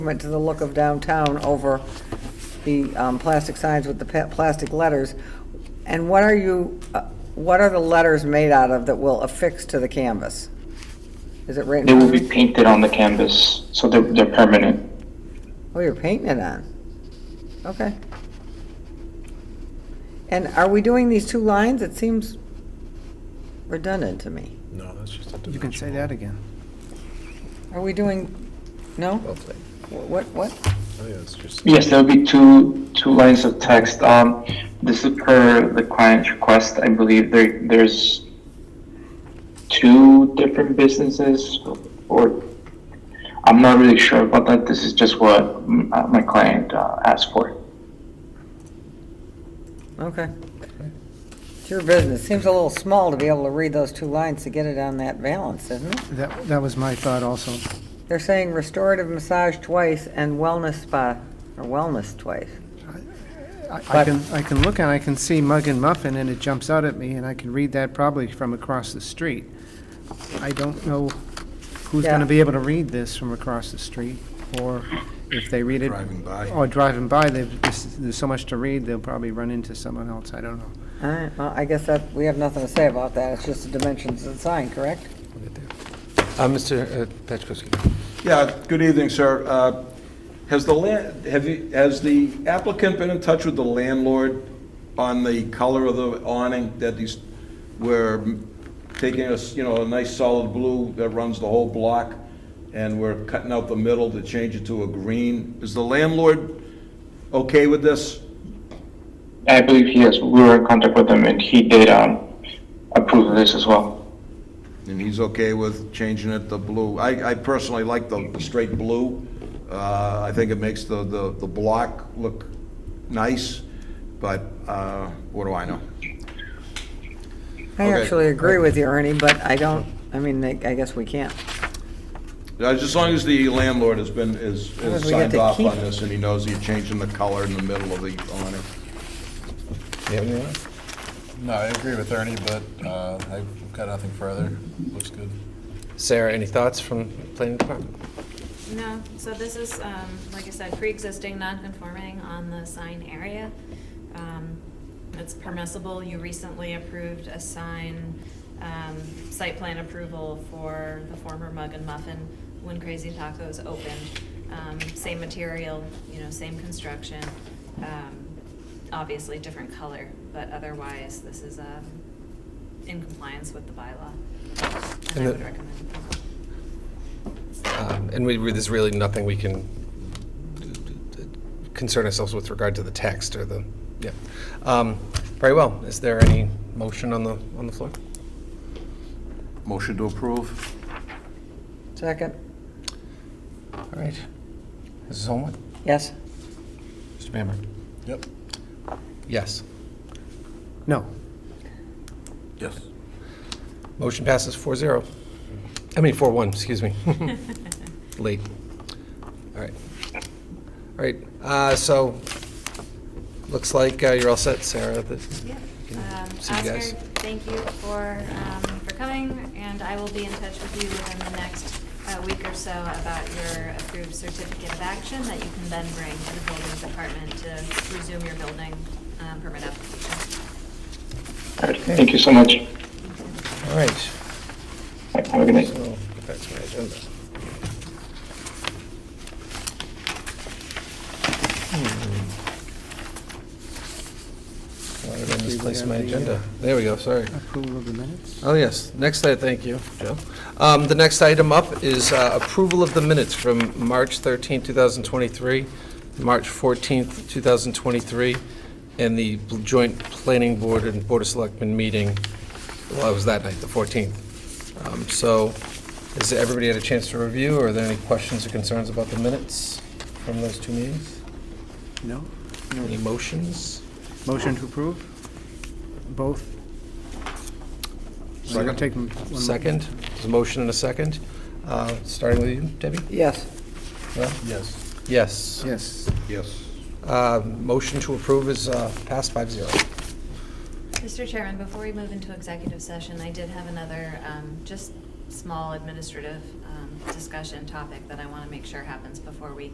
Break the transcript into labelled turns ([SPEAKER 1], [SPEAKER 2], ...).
[SPEAKER 1] went to the look of downtown over the um, plastic signs with the pa- plastic letters. And what are you, uh, what are the letters made out of that will affix to the canvas? Is it right in
[SPEAKER 2] They will
[SPEAKER 1] front
[SPEAKER 2] be
[SPEAKER 1] of you?
[SPEAKER 2] painted on the canvas, so they're, they're permanent.
[SPEAKER 1] Oh, you're painting it on. Okay. And are we doing these two lines? It seems redundant to me.
[SPEAKER 3] No, that's just a
[SPEAKER 4] You can say
[SPEAKER 3] dimensional.
[SPEAKER 4] that again.
[SPEAKER 1] Are we doing, no? What, what?
[SPEAKER 3] Oh, yeah, it's just.
[SPEAKER 2] Yes, there will be two, two lines of text. Um, this is per the client's request, I believe there, there's two different businesses or, I'm not really sure about that, this is just what mm, uh, my client uh, asked for.
[SPEAKER 1] Okay. It's your business. Seems a little small to be able to read those two lines to get it on that balance, isn't it?
[SPEAKER 4] That, that was my thought also.
[SPEAKER 1] They're saying restorative massage twice and wellness spa, or wellness twice.
[SPEAKER 4] I- I can, I can look and I can see Mug and Muffin and it jumps out at me and I can read that probably from across the street. I don't know who's
[SPEAKER 1] Yeah.
[SPEAKER 4] gonna be able to read this from across the street or if they read it.
[SPEAKER 3] Driving by.
[SPEAKER 4] Or driving by, they've, this- there's so much to read, they'll probably run into someone else, I don't know.
[SPEAKER 1] All right, well, I guess that, we have nothing to say about that. It's just the dimensions of the sign, correct?
[SPEAKER 5] Uh, Mr. Petchkowski.
[SPEAKER 6] Yeah, good evening, sir. Uh, Has the land, have you, has the applicant been in touch with the landlord on the color of the awning that he's, we're taking us, you know, a nice solid blue that runs the whole block, and we're cutting out the middle to change it to a green? Is the landlord okay with this?
[SPEAKER 2] I believe he has, we were in contact with him and he did, um, approve of this as well.
[SPEAKER 6] And he's okay with changing it to blue. I, I personally like the straight blue. Uh, I think it makes the, the, the block look nice, but, uh, what do I know?
[SPEAKER 1] I
[SPEAKER 6] Okay.
[SPEAKER 1] actually agree with you, Ernie, but I don't, I mean, I I guess we can't.
[SPEAKER 6] Uh, As long as the landlord has been, is,
[SPEAKER 1] long as
[SPEAKER 6] has
[SPEAKER 1] we get
[SPEAKER 6] signed
[SPEAKER 1] to
[SPEAKER 6] off
[SPEAKER 1] keep-
[SPEAKER 6] on this and he knows you're changing the color in the middle of the awning.
[SPEAKER 5] You have anyone? else?
[SPEAKER 3] No, I agree with Ernie, but uh, I've got nothing further. Looks good.
[SPEAKER 5] Sarah, any thoughts from planning department?
[SPEAKER 7] No, so this is, um, like I said, pre-existing, non-conforming on the sign area. Um, It's permissible, you recently approved a sign, um, site plan approval for the former Mug and Muffin when Crazy Tacos opened. Um, Same material, you know, same construction, um, obviously different color, but otherwise, this is um, in compliance with the bylaw. And
[SPEAKER 5] And
[SPEAKER 7] I
[SPEAKER 5] the-
[SPEAKER 7] would recommend approval.
[SPEAKER 5] Um, And we, we- there's really nothing we can d- d- d- concern ourselves with regard to the text or the, yeah. Um, Very well. Is there any motion on the, on the floor?
[SPEAKER 6] Motion to approve?
[SPEAKER 1] Second?
[SPEAKER 5] All right. Mrs. Holman?
[SPEAKER 1] Yes?
[SPEAKER 5] Mr. Bamber?
[SPEAKER 3] Yep.
[SPEAKER 5] Yes.
[SPEAKER 4] No,
[SPEAKER 3] Yes.
[SPEAKER 5] Motion passes 4-0. I mean, 4-1, excuse me. Late. All right. All right, uh, so, looks like uh, you're all set, Sarah. That-
[SPEAKER 7] Yeah.
[SPEAKER 5] Can
[SPEAKER 7] Um,
[SPEAKER 5] see you
[SPEAKER 7] Oscar,
[SPEAKER 5] guys.
[SPEAKER 7] thank you for, um, for coming, and I will be in touch with you within the next uh, week or so about your approved certificate of action that you can then bring to the building department to resume your building um, permit application.
[SPEAKER 2] All right, thank you so much.
[SPEAKER 5] All right.
[SPEAKER 2] Have a good night.
[SPEAKER 5] So, get back to my agenda. Hmm. Why did I misplace my agenda? There we go, sorry.
[SPEAKER 4] approval of the minutes?
[SPEAKER 5] Oh, yes. Next, I thank you, Joe. Um, The next item up is uh, approval of the minutes from March 13, 2023, March 14, 2023, and the joint planning board and board of selectmen meeting, well, it was that night, the 14th. Um, So has everybody had a chance to review? Are there any questions or concerns about the minutes from those two meetings?
[SPEAKER 4] No?
[SPEAKER 5] Any motions?
[SPEAKER 4] Motion to approve? Both? Or you'll take them one by one?
[SPEAKER 5] Second? There's a motion and a second. Uh, Starting with you, Debbie?
[SPEAKER 1] Yes.
[SPEAKER 5] Yeah?
[SPEAKER 3] Yes.
[SPEAKER 5] Yes.
[SPEAKER 4] Yes.
[SPEAKER 3] Yes.
[SPEAKER 5] Uh, Motion to approve is uh, passed five zero.
[SPEAKER 7] Mr. Chairman, before we move into executive session, I did have another, um, just small administrative um, discussion topic that I want to make sure happens before we